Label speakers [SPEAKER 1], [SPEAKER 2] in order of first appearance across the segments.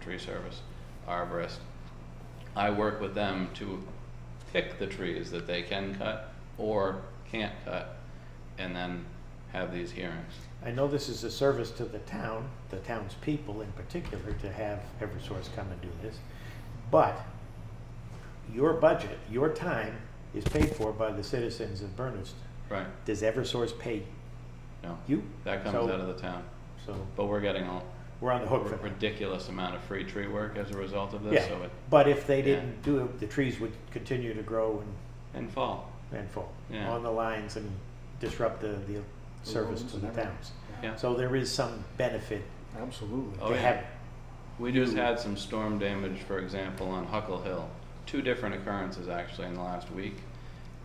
[SPEAKER 1] Tree Service, arborist. I work with them to pick the trees that they can cut or can't cut, and then have these hearings.
[SPEAKER 2] I know this is a service to the town, the town's people in particular, to have Eversource come and do this. But your budget, your time is paid for by the citizens of Bernardston.
[SPEAKER 1] Right,
[SPEAKER 2] Does Eversource pay
[SPEAKER 1] no,
[SPEAKER 2] you?
[SPEAKER 1] that comes
[SPEAKER 2] So-
[SPEAKER 1] out of the town,
[SPEAKER 2] So
[SPEAKER 1] but we're getting a
[SPEAKER 2] we're on the hook for that.
[SPEAKER 1] ridiculous amount of free tree work as a result of this,
[SPEAKER 2] Yeah,
[SPEAKER 1] so it,
[SPEAKER 2] but if they
[SPEAKER 1] yeah.
[SPEAKER 2] didn't do it, the trees would continue to grow and,
[SPEAKER 1] and fall,
[SPEAKER 2] and fall
[SPEAKER 1] Yeah.
[SPEAKER 2] on the lines and disrupt the, the service
[SPEAKER 3] roads
[SPEAKER 2] to the
[SPEAKER 3] and everything.
[SPEAKER 2] towns.
[SPEAKER 1] yeah.
[SPEAKER 2] So there is some benefit
[SPEAKER 3] Absolutely.
[SPEAKER 1] Oh,
[SPEAKER 2] to
[SPEAKER 1] yeah.
[SPEAKER 2] have,
[SPEAKER 1] We just had some storm damage, for example, on Huckle Hill. Two different occurrences actually in the last week.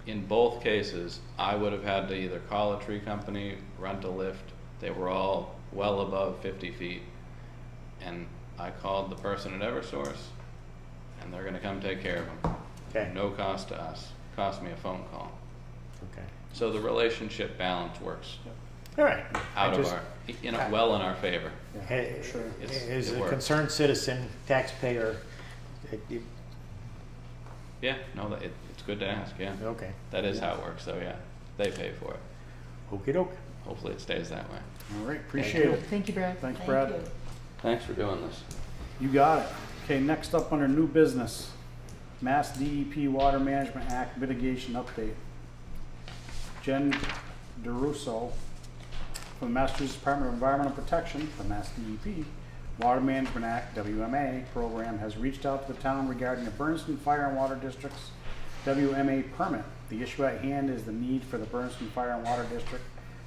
[SPEAKER 1] In both cases, I would have had to either call a tree company, rent a lift. They were all well above fifty feet. And I called the person at Eversource and they're gonna come take care of
[SPEAKER 2] okay,
[SPEAKER 1] them. No cost to us, cost me a phone call.
[SPEAKER 2] okay.
[SPEAKER 1] So the relationship balance works
[SPEAKER 2] All right. I
[SPEAKER 1] out of
[SPEAKER 2] just-
[SPEAKER 1] our, in, a- well in our favor.
[SPEAKER 3] Yeah,
[SPEAKER 2] Hey,
[SPEAKER 3] Sure.
[SPEAKER 1] It's-
[SPEAKER 2] As
[SPEAKER 1] it
[SPEAKER 2] a
[SPEAKER 1] works.
[SPEAKER 2] concerned citizen, taxpayer, it- it-
[SPEAKER 1] Yeah, no, that- it, it's good to ask, yeah.
[SPEAKER 2] okay,
[SPEAKER 1] That is how it works, though, yeah. They pay for it.
[SPEAKER 2] okey doke.
[SPEAKER 1] Hopefully it stays that way.
[SPEAKER 3] All right, appreciate
[SPEAKER 2] you.
[SPEAKER 3] it.
[SPEAKER 4] Thank you, Brad.
[SPEAKER 3] Thanks,
[SPEAKER 5] Thank
[SPEAKER 3] Brad.
[SPEAKER 5] you.
[SPEAKER 1] Thanks for doing this.
[SPEAKER 3] You got it. Okay, next up under new business, Mass DEP Water Management Act mitigation update. Jen DeRusso from the Massachusetts Department of Environmental Protection, the Mass DEP, Water Management Act, WMA program has reached out to the town regarding the Berniston Fire and Water District's WMA permit. The issue at hand is the need for the Berniston Fire and Water District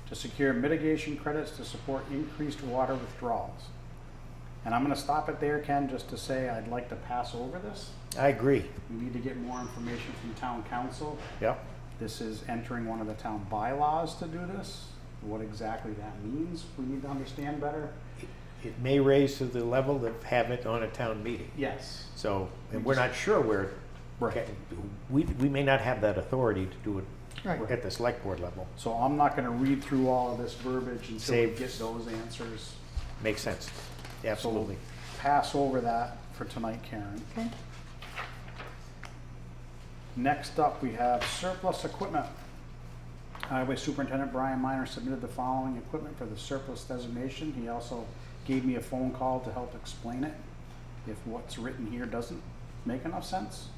[SPEAKER 3] to secure mitigation credits to support increased water withdrawals. And I'm gonna stop it there, Ken, just to say I'd like to pass over this.
[SPEAKER 2] I agree,
[SPEAKER 3] We need to get more information from town council.
[SPEAKER 2] yep.
[SPEAKER 3] This is entering one of the town bylaws to do this. What exactly that means, we need to understand better.
[SPEAKER 2] It may raise to the level of have it on a town meeting.
[SPEAKER 3] Yes.
[SPEAKER 2] So, and we're not sure where,
[SPEAKER 3] Right.
[SPEAKER 2] we, we may not have that authority to do it
[SPEAKER 4] Right.
[SPEAKER 2] at the select board level.
[SPEAKER 3] So I'm not gonna read through all of this verbiage until we
[SPEAKER 2] Save.
[SPEAKER 3] get those answers.
[SPEAKER 2] Makes sense, absolutely.
[SPEAKER 3] Pass over that for tonight, Karen.
[SPEAKER 4] Okay.
[SPEAKER 3] Next up, we have surplus equipment. Highway Superintendent Brian Minor submitted the following equipment for the surplus designation. He also gave me a phone call to help explain it if what's written here doesn't make enough sense.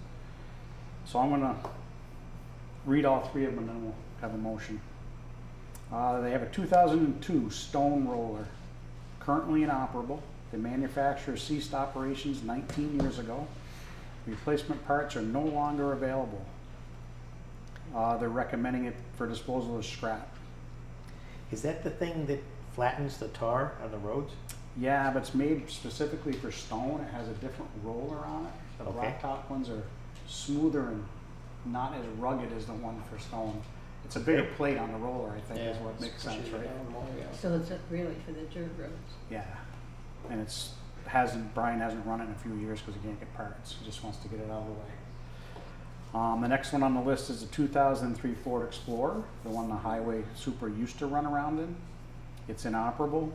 [SPEAKER 3] So I'm gonna read all three of them and then we'll have a motion. Uh, they have a two thousand and two stone roller, currently inoperable. The manufacturer ceased operations nineteen years ago. Replacement parts are no longer available. Uh, they're recommending it for disposal as scrap.
[SPEAKER 2] Is that the thing that flattens the tar on the roads?
[SPEAKER 3] Yeah, but it's made specifically for stone. It has a different roller on it. The
[SPEAKER 2] Okay.
[SPEAKER 3] blacktop ones are smoother and not as rugged as the one for stone. It's a bigger
[SPEAKER 2] Okay.
[SPEAKER 3] plate on the roller, I think, is
[SPEAKER 2] Yeah,
[SPEAKER 3] what makes sense, right?
[SPEAKER 2] Mm-hmm.
[SPEAKER 5] So it's really for the dirt roads.
[SPEAKER 3] Yeah. And it's hasn't Brian hasn't run it in a few years because he can't get parts. He just wants to get it out of the way. Um, the next one on the list is the 2003 Ford Explorer, the one the highway super used to run around in. It's inoperable.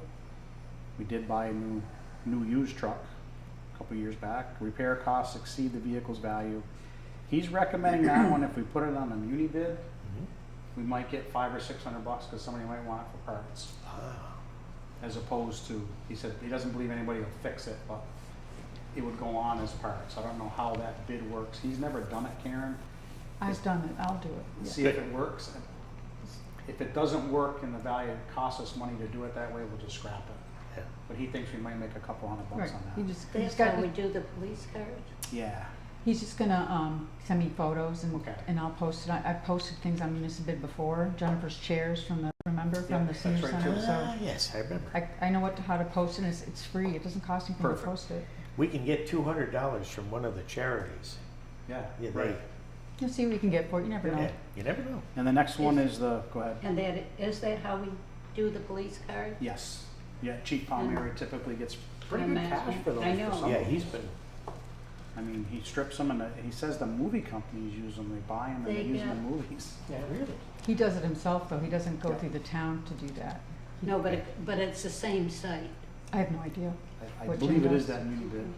[SPEAKER 3] We did buy a new new used truck a couple years back. Repair costs exceed the vehicle's value. He's recommending that one if we put it on a muni bid, we might get five or six hundred bucks because somebody might want it for parts as opposed to, he said, he doesn't believe anybody will fix it, but it would go on as parts. I don't know how that bid works. He's never done it, Karen.
[SPEAKER 4] I've done it. I'll do it.
[SPEAKER 3] See if it works. If it doesn't work and the value costs us money to do it that way, we'll just scrap it.
[SPEAKER 2] Yeah.
[SPEAKER 3] But he thinks we might make a couple hundred
[SPEAKER 4] Right.
[SPEAKER 3] bucks on
[SPEAKER 4] He
[SPEAKER 3] that.
[SPEAKER 4] just, he's
[SPEAKER 5] That's how
[SPEAKER 4] got,
[SPEAKER 5] we do the police cars.
[SPEAKER 3] Yeah,
[SPEAKER 4] he's just gonna, um, send me photos and,
[SPEAKER 3] Okay.
[SPEAKER 4] and I'll post it. I, I've posted things on municipal bid before. Jennifer's chairs from the, remember,
[SPEAKER 3] Yeah,
[SPEAKER 4] from the
[SPEAKER 3] that's
[SPEAKER 4] senior
[SPEAKER 3] right, too.
[SPEAKER 4] center, so.
[SPEAKER 2] Ah, yes, I remember.
[SPEAKER 4] I, I know what, to- how to post it. It's, it's free. It doesn't cost anything to
[SPEAKER 3] Perfect.
[SPEAKER 4] post it.
[SPEAKER 2] We can get two hundred dollars from one of the charities.
[SPEAKER 3] yeah,
[SPEAKER 2] Yeah, they-
[SPEAKER 3] right.
[SPEAKER 4] You'll see what you can get for it. You never know.
[SPEAKER 2] Yeah, You never know.
[SPEAKER 3] And the next one is the, go ahead.
[SPEAKER 5] And that, is that how we do the police cars?
[SPEAKER 3] Yes. Yeah, Chief Palmieri typically gets pretty
[SPEAKER 5] I
[SPEAKER 3] good
[SPEAKER 5] imagine.
[SPEAKER 3] cash for those
[SPEAKER 5] I
[SPEAKER 3] for
[SPEAKER 5] know.
[SPEAKER 3] some
[SPEAKER 2] Yeah,
[SPEAKER 3] of
[SPEAKER 2] he's
[SPEAKER 3] them.
[SPEAKER 2] been,
[SPEAKER 3] I mean, he strips them and uh, he says the movie companies use them. They buy them and they
[SPEAKER 5] They
[SPEAKER 3] use them in
[SPEAKER 5] get-
[SPEAKER 3] movies.
[SPEAKER 2] yeah, really.
[SPEAKER 4] He does it himself though. He doesn't go
[SPEAKER 3] Yeah.
[SPEAKER 4] through the town to do that.
[SPEAKER 5] No, but, it- but it's the same site.
[SPEAKER 4] I have no idea.
[SPEAKER 3] I- I
[SPEAKER 4] What
[SPEAKER 3] believe it
[SPEAKER 4] channel?
[SPEAKER 3] is that muni bid.